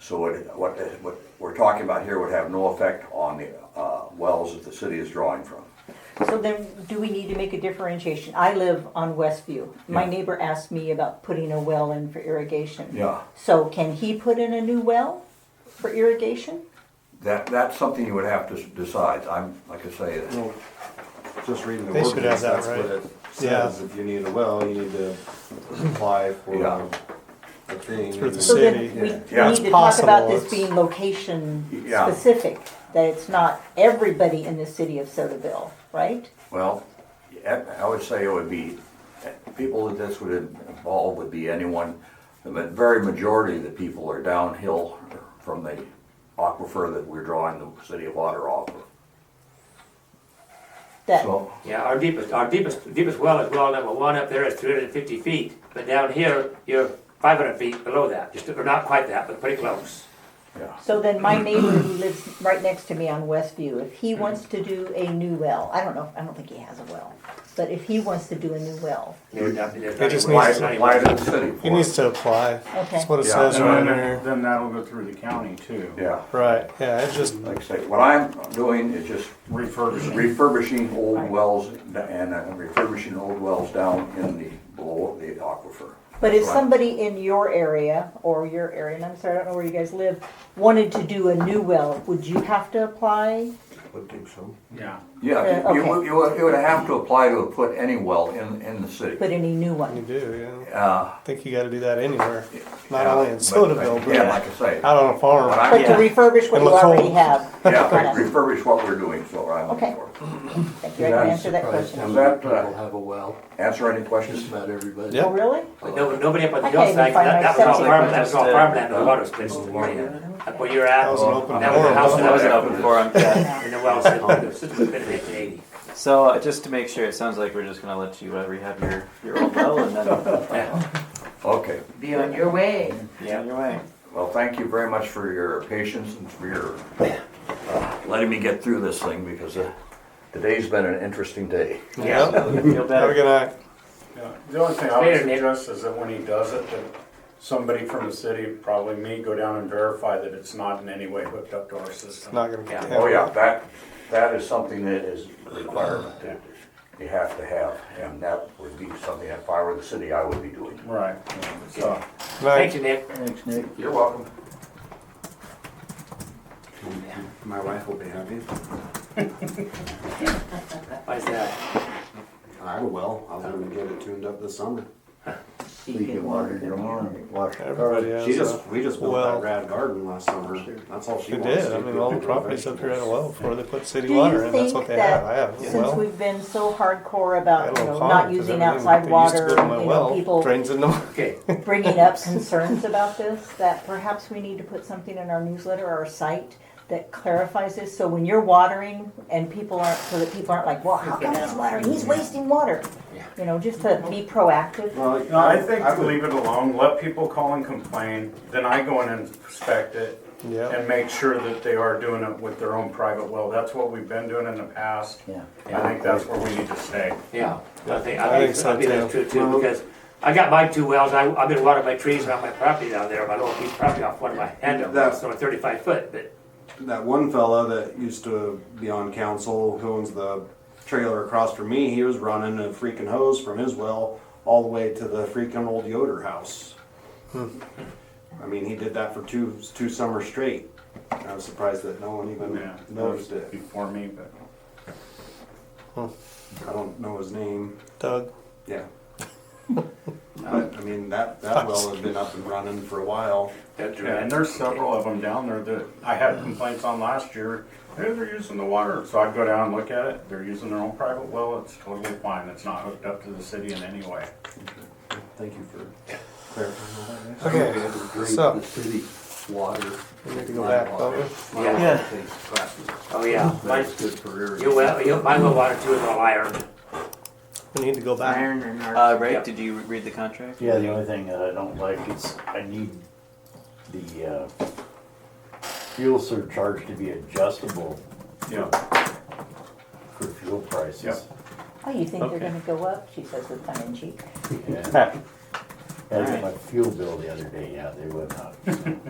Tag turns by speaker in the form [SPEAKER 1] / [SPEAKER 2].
[SPEAKER 1] So what, what, what we're talking about here would have no effect on the, uh, wells that the city is drawing from.
[SPEAKER 2] So then, do we need to make a differentiation? I live on Westview. My
[SPEAKER 1] Yeah.
[SPEAKER 2] neighbor asked me about putting a well in for irrigation.
[SPEAKER 1] Yeah.
[SPEAKER 2] So can he put in a new well for irrigation?
[SPEAKER 1] That, that's something you would have to s- decide, I'm, like I say,
[SPEAKER 3] Well, Just reading the
[SPEAKER 4] They should
[SPEAKER 3] ordinance,
[SPEAKER 4] have that
[SPEAKER 3] that's what
[SPEAKER 4] right.
[SPEAKER 3] it says, if you need a well, you need to apply for
[SPEAKER 1] Yeah.
[SPEAKER 3] a thing.
[SPEAKER 4] Through the
[SPEAKER 2] So
[SPEAKER 3] and-
[SPEAKER 2] then
[SPEAKER 4] City.
[SPEAKER 2] we we
[SPEAKER 1] Yeah.
[SPEAKER 2] need
[SPEAKER 1] Yeah, it's
[SPEAKER 2] to talk about
[SPEAKER 4] possible.
[SPEAKER 2] this being location
[SPEAKER 1] Yeah.
[SPEAKER 2] specific, that it's not everybody in the city of Sotaville, right?
[SPEAKER 1] well, I I would say it would be, people that this would involve would be anyone, the ma- very majority of the people are downhill from the aquifer that we're drawing the city of water off of.
[SPEAKER 2] That,
[SPEAKER 1] So,
[SPEAKER 5] Yeah, our deepest, our deepest, deepest well is well number one up there is three hundred and fifty feet, but down here, you're five hundred feet below that, just, or not quite that, but pretty close.
[SPEAKER 1] yeah,
[SPEAKER 2] so then my neighbor who lives right next to me on Westview, if he wants to do a new well, I don't know, I don't think he has a well, but if he wants to do a new well,
[SPEAKER 5] There's nothing- there's
[SPEAKER 4] It just
[SPEAKER 5] nothing-
[SPEAKER 1] why,
[SPEAKER 4] needs
[SPEAKER 5] there's
[SPEAKER 1] why
[SPEAKER 5] nothing-
[SPEAKER 1] did the city
[SPEAKER 4] He
[SPEAKER 1] for
[SPEAKER 4] needs
[SPEAKER 1] it?
[SPEAKER 4] to apply. That's what it
[SPEAKER 1] Yeah.
[SPEAKER 4] says right
[SPEAKER 6] And
[SPEAKER 4] there.
[SPEAKER 6] then, then that'll go through the county too.
[SPEAKER 1] Yeah,
[SPEAKER 4] Right, yeah, it just,
[SPEAKER 1] like I say, what I'm doing is just
[SPEAKER 6] Refurbishing.
[SPEAKER 1] refurbishing old wells and uh, refurbishing old wells down in the, below the aquifer.
[SPEAKER 2] But if
[SPEAKER 1] Right.
[SPEAKER 2] somebody in your area or your area, and I'm sorry, I don't know where you guys live, wanted to do a new well, would you have to apply?
[SPEAKER 1] Would think so.
[SPEAKER 6] Yeah.
[SPEAKER 1] Yeah,
[SPEAKER 2] Uh,
[SPEAKER 1] you- you
[SPEAKER 2] okay.
[SPEAKER 1] would, you would, you would have to apply to put any well in, in the city.
[SPEAKER 2] Put any new
[SPEAKER 4] you
[SPEAKER 2] one?
[SPEAKER 4] do, yeah.
[SPEAKER 1] Uh,
[SPEAKER 4] I think you gotta do that anywhere, not
[SPEAKER 1] yeah,
[SPEAKER 4] only in
[SPEAKER 1] but-
[SPEAKER 4] Sotaville,
[SPEAKER 1] Yeah, like I
[SPEAKER 4] but
[SPEAKER 1] say,
[SPEAKER 4] out on a
[SPEAKER 1] But
[SPEAKER 4] farm.
[SPEAKER 1] I-
[SPEAKER 2] But to
[SPEAKER 1] yeah.
[SPEAKER 2] refurbish what
[SPEAKER 4] And
[SPEAKER 2] you
[SPEAKER 4] look
[SPEAKER 2] already
[SPEAKER 4] home.
[SPEAKER 2] have?
[SPEAKER 1] yeah,
[SPEAKER 2] Got it.
[SPEAKER 1] refurbish what we're doing, so I'm.
[SPEAKER 2] Okay. Thank you, I can
[SPEAKER 1] Yeah,
[SPEAKER 2] answer that question.
[SPEAKER 1] Does that
[SPEAKER 7] People
[SPEAKER 1] uh,
[SPEAKER 7] have a well,
[SPEAKER 1] answer any questions?
[SPEAKER 7] just about everybody.
[SPEAKER 2] Oh,
[SPEAKER 4] Yep.
[SPEAKER 2] really?
[SPEAKER 5] But no, nobody up on the
[SPEAKER 2] I can't even
[SPEAKER 5] hillside,
[SPEAKER 2] find
[SPEAKER 5] that,
[SPEAKER 2] my
[SPEAKER 5] that was all
[SPEAKER 2] septic.
[SPEAKER 5] farmland, that was all
[SPEAKER 8] Huh?
[SPEAKER 5] farmland, the water spits in the morning, up where you're at,
[SPEAKER 4] uh, That was
[SPEAKER 5] that was
[SPEAKER 4] an open
[SPEAKER 5] the
[SPEAKER 4] door.
[SPEAKER 5] house that I was
[SPEAKER 8] Wasn't
[SPEAKER 5] at.
[SPEAKER 8] open for him.
[SPEAKER 5] And the well said, the system was built in eighteen eighty.
[SPEAKER 8] So uh, just to make sure, it sounds like we're just gonna let you uh, rehab your your old well and then
[SPEAKER 1] Okay,
[SPEAKER 9] Be on your way.
[SPEAKER 8] be on your way.
[SPEAKER 1] well, thank you very much for your patience and for your uh, letting me get through this thing, because uh, today's been an interesting day.
[SPEAKER 4] Yep.
[SPEAKER 8] Feel
[SPEAKER 4] Have a
[SPEAKER 8] better.
[SPEAKER 4] good night.
[SPEAKER 6] Yeah. The only thing I would
[SPEAKER 5] Later, Nick.
[SPEAKER 6] suggest is that when he does it, that somebody from the city, probably me, go down and verify that it's not in any way hooked up to our system.
[SPEAKER 4] Not gonna.
[SPEAKER 5] Yeah.
[SPEAKER 1] Oh, yeah, that, that is something that is a requirement that you have to have, and that would be something, if I were the city, I would be doing.
[SPEAKER 6] Right, so.
[SPEAKER 5] Thank
[SPEAKER 4] Night.
[SPEAKER 5] you, Nick.
[SPEAKER 6] Thanks, Nick.
[SPEAKER 1] You're welcome.
[SPEAKER 3] My wife will be happy.
[SPEAKER 5] Why is that?
[SPEAKER 3] I will, I'm gonna get it tuned up this summer.
[SPEAKER 1] Speaking water, your lawn, water.
[SPEAKER 4] Everybody
[SPEAKER 3] She
[SPEAKER 4] has,
[SPEAKER 3] just,
[SPEAKER 4] uh,
[SPEAKER 3] we just built
[SPEAKER 4] well-
[SPEAKER 3] that rad garden last summer, that's all she
[SPEAKER 4] they
[SPEAKER 3] wants.
[SPEAKER 4] did, I
[SPEAKER 3] to
[SPEAKER 4] mean,
[SPEAKER 3] do
[SPEAKER 4] all the
[SPEAKER 3] with
[SPEAKER 4] properties up here had a well before they put city
[SPEAKER 2] Do you
[SPEAKER 4] water in, that's
[SPEAKER 2] think
[SPEAKER 4] what they
[SPEAKER 2] that
[SPEAKER 4] had, I have a
[SPEAKER 2] Since
[SPEAKER 4] well.
[SPEAKER 2] we've been so hardcore
[SPEAKER 4] I had
[SPEAKER 2] about,
[SPEAKER 4] a
[SPEAKER 2] you
[SPEAKER 4] little
[SPEAKER 2] know,
[SPEAKER 4] pond,
[SPEAKER 2] not
[SPEAKER 4] 'cause
[SPEAKER 2] using
[SPEAKER 4] everything
[SPEAKER 2] outside
[SPEAKER 4] they used to
[SPEAKER 2] water,
[SPEAKER 4] go
[SPEAKER 2] you
[SPEAKER 4] to my
[SPEAKER 2] know,
[SPEAKER 4] well
[SPEAKER 2] people
[SPEAKER 4] Drains into my,
[SPEAKER 5] Okay,
[SPEAKER 2] bringing up concerns about this, that perhaps we need to put something in our newsletter or our site that clarifies this, so when you're watering and people aren't, so that people aren't like, well, how come he's watering, he's wasting water? You know, just to be proactive,
[SPEAKER 3] Well,
[SPEAKER 6] No, I think
[SPEAKER 3] I would-
[SPEAKER 6] leave it alone, let people call and complain, then I go in and inspect it
[SPEAKER 4] yeah,
[SPEAKER 6] and make sure that they are doing it with their own private well. That's what we've been doing in the past.
[SPEAKER 1] Yeah.
[SPEAKER 6] I think that's where we need to stay.
[SPEAKER 5] yeah, I think,
[SPEAKER 4] I
[SPEAKER 5] I
[SPEAKER 4] think
[SPEAKER 5] think,
[SPEAKER 4] so,
[SPEAKER 5] I think that's
[SPEAKER 4] too.
[SPEAKER 5] true too, because I got my two wells, I, I've been watering my trees around my property down there, my little piece of property off one of my handles,
[SPEAKER 3] That's-
[SPEAKER 5] so thirty-five foot, but
[SPEAKER 3] that one fella that used to be on council who owns the trailer across from me, he was running a freaking hose from his well all the way to the freaking old Yoder house. I mean, he did that for two two summers straight. I was surprised that no one even
[SPEAKER 6] Yeah, that was
[SPEAKER 3] noticed it.
[SPEAKER 6] before me, but.
[SPEAKER 3] I don't know his name.
[SPEAKER 4] Doug,
[SPEAKER 3] Yeah. But I mean, that, that well has been up and running for a while.
[SPEAKER 5] That's
[SPEAKER 6] Yeah, and
[SPEAKER 5] right.
[SPEAKER 6] there's several of them down there that I had complaints on last year. Hey, they're using the water. So I'd go down and look at it. They're using their own private well. It's totally fine. It's not hooked up to the city in any way.
[SPEAKER 3] Thank you for clarifying all that.
[SPEAKER 4] Okay,
[SPEAKER 7] We have to drink
[SPEAKER 4] so-
[SPEAKER 7] The city water.
[SPEAKER 4] we need to go back, don't we?
[SPEAKER 5] Yeah.
[SPEAKER 7] Yeah. That's
[SPEAKER 5] Oh, yeah. My,
[SPEAKER 7] good for irrigation.
[SPEAKER 5] your well, your, my well water too is all iron.
[SPEAKER 4] We need to go back.
[SPEAKER 9] Iron and our.
[SPEAKER 8] Uh, Ray,
[SPEAKER 5] Yep.
[SPEAKER 8] did you read the contract?
[SPEAKER 10] Yeah, the only thing that I don't like is I need the uh, fuel surcharge to be adjustable
[SPEAKER 6] Yeah.
[SPEAKER 10] for fuel prices.
[SPEAKER 2] oh, you think they're
[SPEAKER 10] Okay.
[SPEAKER 2] gonna go up, she says with tongue in cheek.
[SPEAKER 10] Yeah. I looked at my fuel bill the other day, yeah, they went up.